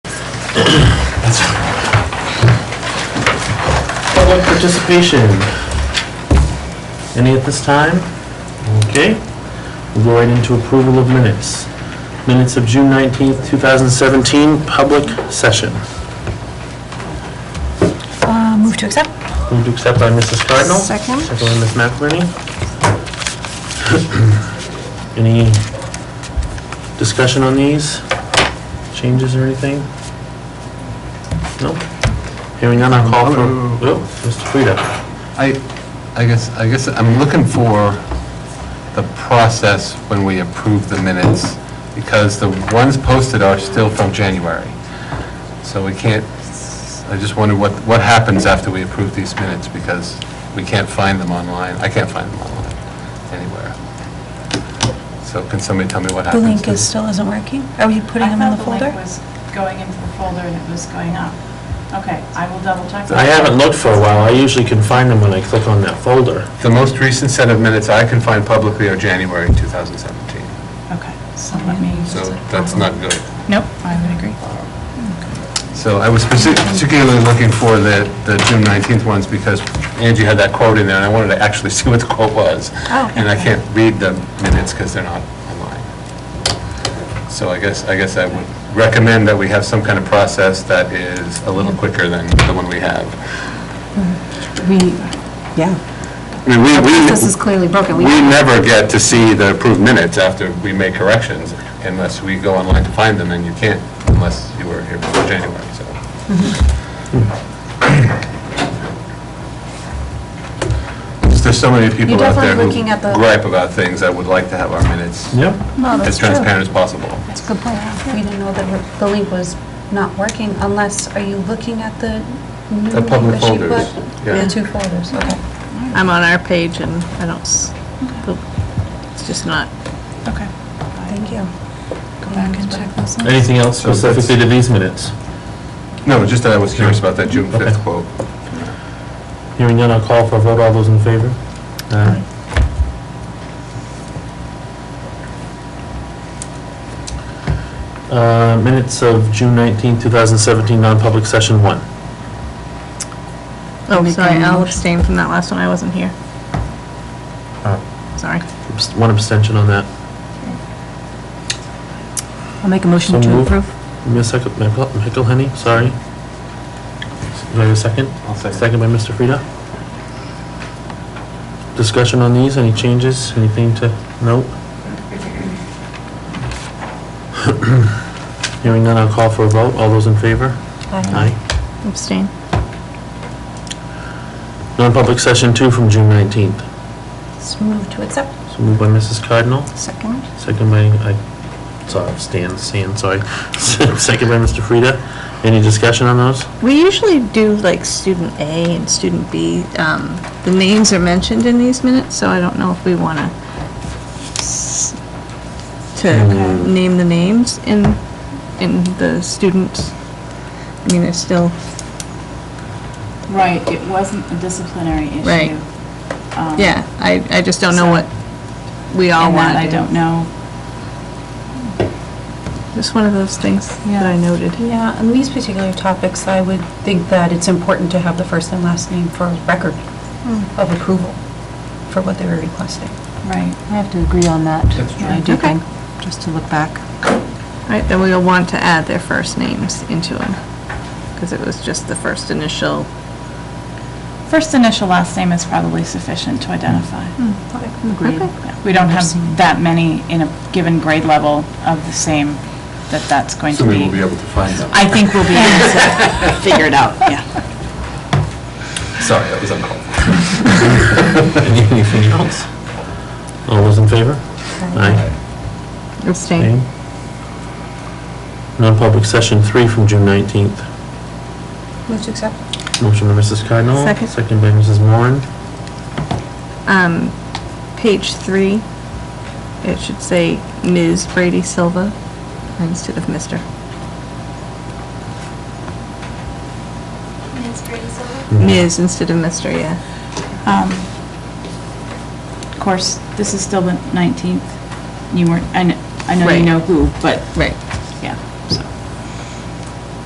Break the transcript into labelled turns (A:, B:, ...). A: Public participation. Any at this time? Okay. We'll go right into approval of minutes. Minutes of June 19th, 2017, public session.
B: Uh, Move to accept.
A: Moved to accept by Mrs. Cardinal.
B: Second.
A: Second by Ms. McInerney. Any discussion on these? Changes or anything? No? Hearing none, I'll call for,
C: Um,
A: oh, Mr. Frida.
C: I, I guess, I guess I'm looking for the process when we approve the minutes, because the ones posted are still from January. So we can't, I just wonder what, what happens after we approve these minutes, because we can't find them online. I can't find them online anywhere. So can somebody tell me what
B: The
C: happens?
B: link is, still isn't working. Are we putting them in the
D: I
B: folder?
D: thought the link was going into the folder and it was going up. Okay, I will double check. that.
A: I haven't looked for a while. I usually can find them when I click on that folder.
C: The most recent set of minutes I can find publicly are January 2017,
D: Okay, so let me.
C: so that's not good.
D: Nope, I would agree.
C: So I was speci- particularly looking for the, the June 19th ones because Angie had that quote in there and I wanted to actually see what the quote was.
B: Oh.
C: And I can't read the minutes because they're not online. So I guess, I guess I would recommend that we have some kind of process that is a little quicker than the one we have.
E: We, yeah.
C: I mean, we,
E: This is
C: we,
E: clearly broken. We-
C: we never get to see the approved minutes after we make corrections unless we go online to find them and you can't unless you were here before January, so.
E: Mm-hmm.
C: There's so many people
E: You're
C: out there
E: definitely looking at
C: who
E: the-
C: gripe about things I would like to have our minutes
A: Yep.
E: Well,
C: as
E: that's true.
C: transparent as possible.
E: That's a good point. We didn't know that the link was not working unless, are you looking at the new
C: The
E: link
C: public
E: that she put?
C: folders, yeah.
E: The two folders, okay.
F: I'm on our page and I don't, s- it's just not,
D: Okay.
E: Thank you.
D: Go back and check this.
A: Anything else
C: So that's-
A: specifically to these minutes?
C: No, just that I was curious about that June
A: Okay.
C: 5th quote.
A: Hearing none, I'll call for a vote. All those in favor? Aye. Uh, Minutes of June 19, 2017, non-public session one.
F: oh,
E: Make
F: sorry,
E: a
F: I'll
E: motion.
F: abstain from that last one, I wasn't here.
C: Oh.
F: Sorry.
A: Abst- One abstention on that.
E: I'll make a motion
A: So to moved. approve. Miss Heck- Michael- McElhenney, sorry. Do I have a second?
C: I'll
A: Second by Mr. Frida. Discussion on these, any changes, anything to note? Hearing none, I'll call for a vote. All those in favor? Aye.
F: Abstain.
A: Non-public session two from June 19th.
E: So move to accept.
A: So moved by Mrs. Cardinal,
E: Second.
A: second by, I, sorry, Stan, Stan, sorry. Second by Mr. Frida. Any discussion on those?
F: We usually do like student A and student B. Um, The names are mentioned in these minutes, so I don't know if we want to, to name the names in, in the students. I mean, they're still,
D: Right, it wasn't a disciplinary issue.
F: Right.
D: Um,
F: yeah, I, I just don't know what we all
D: And that
F: want to
D: I
F: do.
D: don't know.
F: Just one of those things that I noted.
E: Yeah, on these particular topics, I would think that it's important to have the first and last name for record
B: Hmm.
E: of approval for what they were requesting.
D: Right.
G: I have to agree on that.
C: That's true.
G: I do
D: Okay.
G: think, just to look back.
F: All right, then we'll want to add their first names into them, because it was just the first initial.
D: First initial, last name is probably sufficient to identify.
B: Hmm.
G: Agreed.
D: Yeah, We don't have that many in a given grade level of the same, that that's going to
C: Somebody will
D: be.
C: be able to find them.
D: I think we'll be able to figure it out, yeah.
C: Sorry, that was uncalled for.
A: Anything else? All those in favor? Aye.
F: Abstain.
A: Non-public session three from June 19th.
E: Move to accept.
A: Motion by Mrs. Cardinal.
F: Second.
A: by Mrs. Moran.
F: Um, page three, it should say Ms. Brady Silva instead of Mr. Ms. instead of Mr., yeah.
D: Um, Of course, this is still the 19th. You weren't, I kn- I know you
F: Right.
D: know who, but
F: Right.